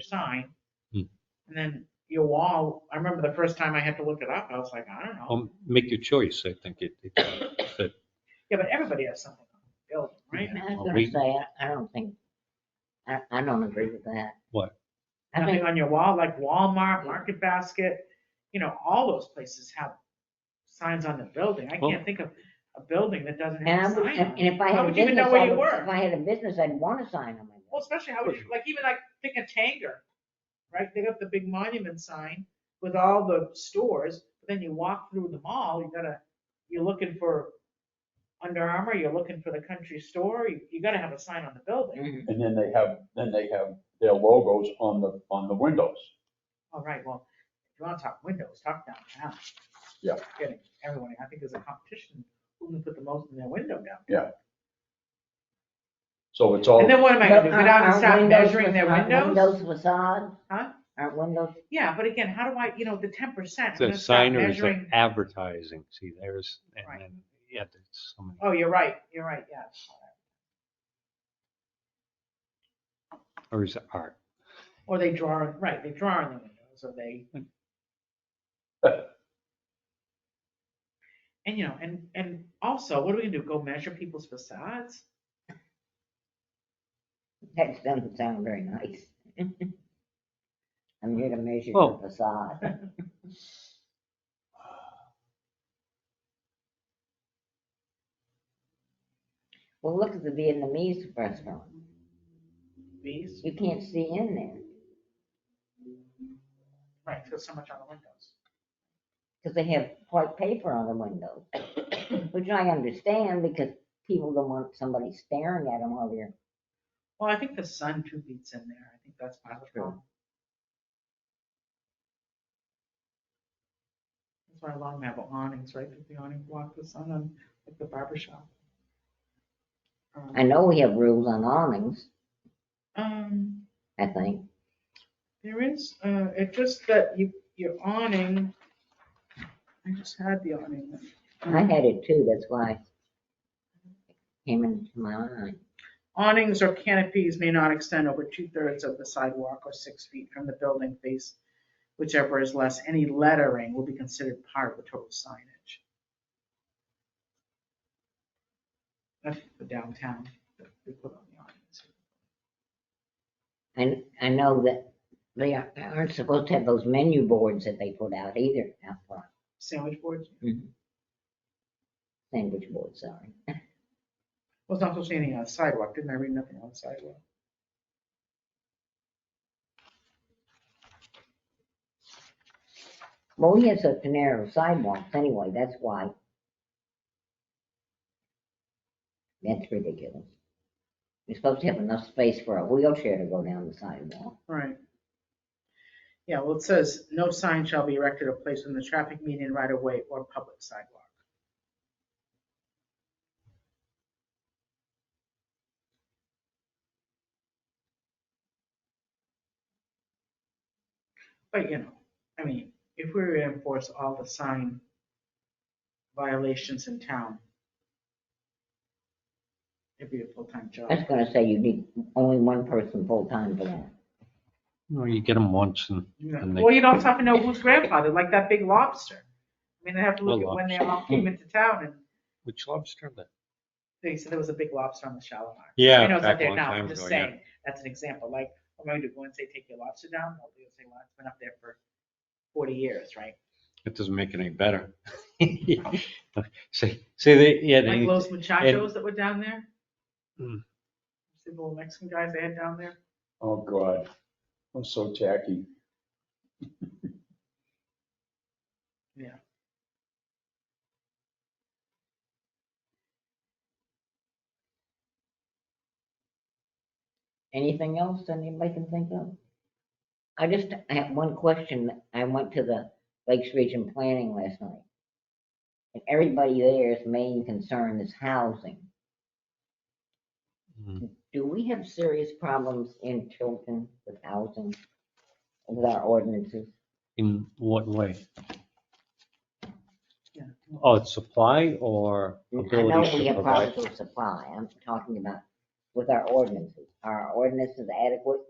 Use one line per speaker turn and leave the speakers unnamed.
sign.
Hmm.
And then your wall, I remember the first time I had to look it up, I was like, I don't know.
Um, make your choice, I think it, it, that-
Yeah, but everybody has something on the building, right?
I
Well,
was gonna
we-
say, I, I don't think, I, I don't agree with that.
What?
I
Nothing
think,
on your wall, like Walmart, Market Basket, you know, all those places have signs on the building. I
Well-
can't think of a building that doesn't
and I
have a
would,
sign on
and
it.
if I
How
had a
would you even
business,
know where
I
you
would-
were?
if I had a business, I'd want a sign on my wall.
Well, especially how would you, like even like pick a Tanger, right? They got the big monument sign with all the stores, but then you walk through the mall, you gotta, you're looking for Under Armour, you're looking for the country store, you, you gotta have a sign on the
Mm-hmm.
building.
Mhm.
And then they have, then they have their logos on the, on the windows.
All right, well, if you wanna talk windows, talk downtown.
Yeah.
Getting everyone, I think there's a competition, who can put the most in their window down.
So
Oh.
it's all.
And then what am I gonna do,
But
go down and
aren't-
start
aren't windows
measuring their
fac- aren't
windows?
Windows facades?
Huh?
Aren't windows,
Yeah, but again, how do I, you know, the ten percent,
it's
I'm
a
gonna start
sign or is it
measuring.
advertising, see, there's,
Right.
and then, yeah, there's so many.
Oh, you're right, you're right, yes.
Or is it art?
Or they draw, right, they draw on the windows, or they. And, you know, and, and also, what are we gonna do, go measure people's facades?
that doesn't sound very nice. I'm here to measure
Well-
your facade. Well, look at the Vietnamese restaurant.
These,
You can't see in there,
right, there's so much on the windows.
because they have white paper on the windows, which I understand because people don't want somebody staring at them while they're,
Well, I think the sun too beats in there, I think that's part of the
True.
problem. That's why a lot of them have awnings, right, Does the awning block the sun on, like the barber shop. Um,
I know we have rules on awnings,
Um.
I think.
There is, uh, it just that you, your awning, I just had the awning.
I had it too, that's why it came into my mind.
Awnings or canopies may not extend over two-thirds of the sidewalk or six feet from the building face, whichever is less. Any lettering will be considered part of the total signage. That's the downtown, that we put on the awnings.
And I know that they aren't- aren't supposed to have those menu boards that they put out either out front,
Sandwich boards,
sandwich boards, sorry.
was not supposed to be anything on the sidewalk, didn't I read nothing on the sidewalk?
Well, we have such narrow sidewalks anyway, that's why. That's ridiculous. You're supposed to have enough space for a wheelchair to go down the sidewalk.
Right. Yeah, well, it says, no sign shall be erected or placed in the traffic median right of way or public sidewalk. But, you know, I mean, if we were to enforce all the sign violations in town, it'd be a full-time job.
That's gonna say you need only one person full-time for that.
Well, you get them once and,
Yeah.
And they-
Well, you don't have to know who's grandfather, like that big lobster. I mean, they have to look
The
at when they all came into town and
which lobster then?
they said there was a big lobster on the Shalimar.
Yeah.
I know it's not
back a
there
long
now,
time
I'm just
ago, yeah.
saying, that's an example, like, I'm going to go and say, take your lobster down, well, they'll say, well, it's been up there for forty years, right?
It doesn't make it any better. See, see, they, yeah,
Like
they,
Los Muchachos that were down there?
Hmm.
See the little Mexican guys they had down there?
Oh, God. I'm so tacky.
Anything else that anybody can think of? I just, I have one question. I went to the Lakes Region Planning last night. And everybody there's main concern is housing.
Mm.
Do we have serious problems in Tilton with housing? With our ordinances?
in what way?
Yeah.
Oh, it's supply or
I know
ability
we
to
have
provide?
problems with supply. I'm talking about with our ordinances. Are our ordinances adequate